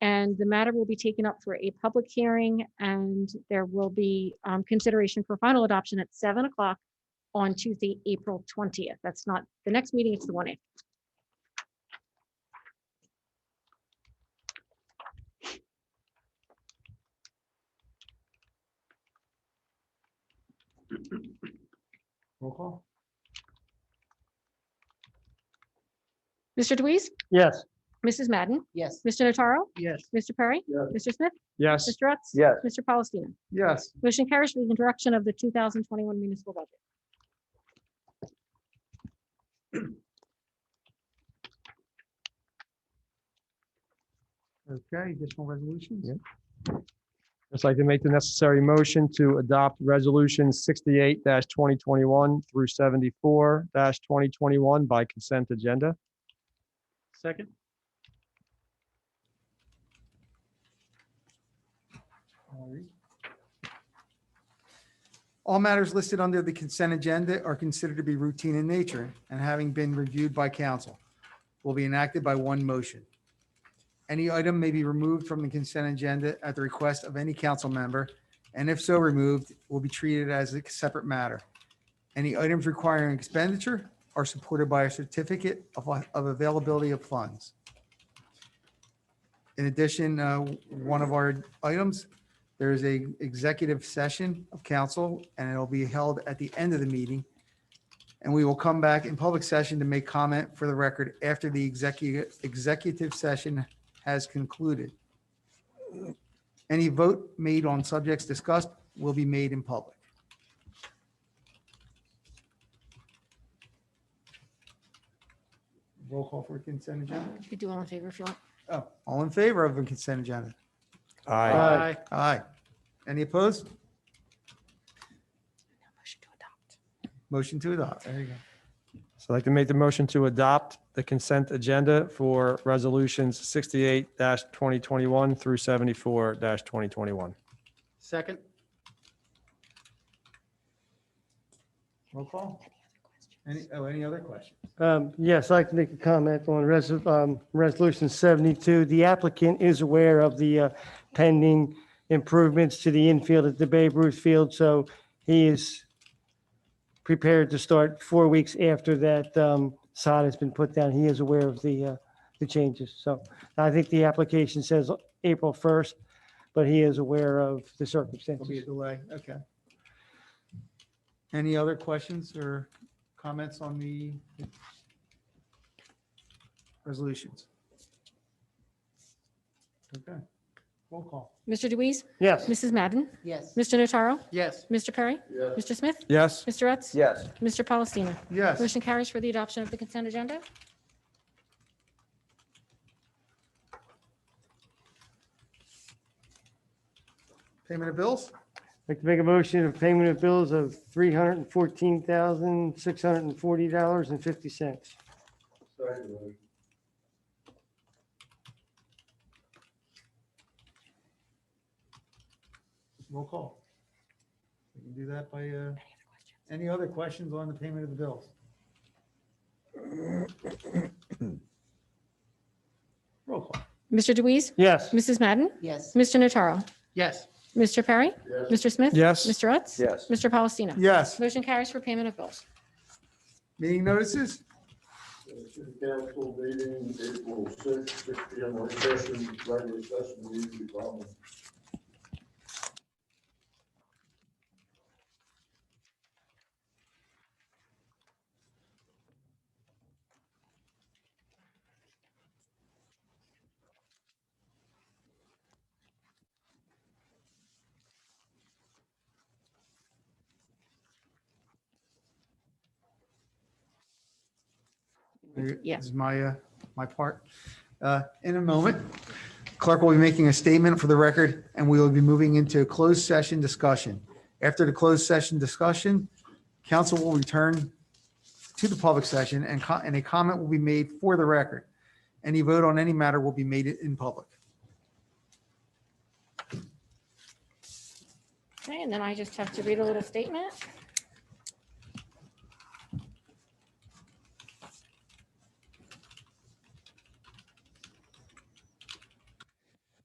and the matter will be taken up for a public hearing, and there will be um, consideration for final adoption at seven o'clock on Tuesday, April twentieth. That's not the next meeting, it's the one after. Roll call? Mr. Deweese, Yes. Mrs. Madden, Yes. Mr. Notaro, Yes. Mr. Perry, Yes. Mr. Smith, Yes. Mr. Rutz. Yes. Mr. Palestina. Yes. Motion carries for the introduction of the two thousand twenty-one municipal budget. Okay, additional resolutions? Yeah. Just like to make the necessary motion to adopt Resolution sixty-eight twenty twenty-one through seventy-four twenty twenty-one by consent agenda. Second? All right. All matters listed under the consent agenda are considered to be routine in nature and having been reviewed by council will be enacted by one motion. Any item may be removed from the consent agenda at the request of any council member, and if so removed, will be treated as a separate matter. Any items requiring expenditure are supported by a certificate of, of availability of funds. In addition, uh, one of our items there is a executive session of council and it'll be held at the end of the meeting. And we will come back in public session to make comment for the record after the executive, executive session has concluded. Any vote made on subjects discussed will be made in public. Roll call for consent agenda. You could do all in favor if you want. Oh, all in favor of a consent agenda? Aye. Aye. Any opposed? Motion to adopt. Motion to adopt. There you go. So I'd like to make the motion to adopt the consent agenda for Resolutions sixty-eight twenty twenty-one through seventy-four twenty twenty-one. Second? Roll call? Any, oh, any other questions? Um, Yes, I'd like to make a comment on res- um, Resolution 72. The applicant is aware of the uh, pending improvements to the infield at the Babe Ruth Field, so he is prepared to start four weeks after that um, sod has been put down. He is aware of the, uh, the changes. So I think the application says April 1st, but he is aware of the There'll be a circumstances. delay, okay. Any other questions or comments on the resolutions? Okay, roll call. Mr. Deweese, Yes. Mrs. Madden, Yes. Mr. Notaro, Yes. Mr. Perry, Mr. Smith, Yes? Mr. Rutz. Yes. Mr. Palestina. Yes, Motion carries for the adoption of the consent agenda. payment of bills? I'd like to make a motion of payment of bills of three hundred and fourteen thousand, six hundred and forty dollars and fifty cents. Roll call. We can do that by, uh, any other questions on the payment of the bills? Roll call. Mr. Deweese, Yes, Mrs. Madden, Yes. Mr. Notaro, Yes. Mr. Perry, Mr. Smith. Yes. Mr. Rutz. Yes. Mr. Palestina. Yes, Motion carries for payment of bills. meeting notices? City Council meeting April sixth, six P M, work session, regular session, meeting, problem. There- Yeah. Is my, uh, my part. Uh, In a moment, clerk will be making a statement for the record, and we will be moving into a closed session discussion. After the closed session discussion, council will return to the public session and co- and a comment will be made for the record. Any vote on any matter will be made in public. Okay, and then I just have to read a little statement.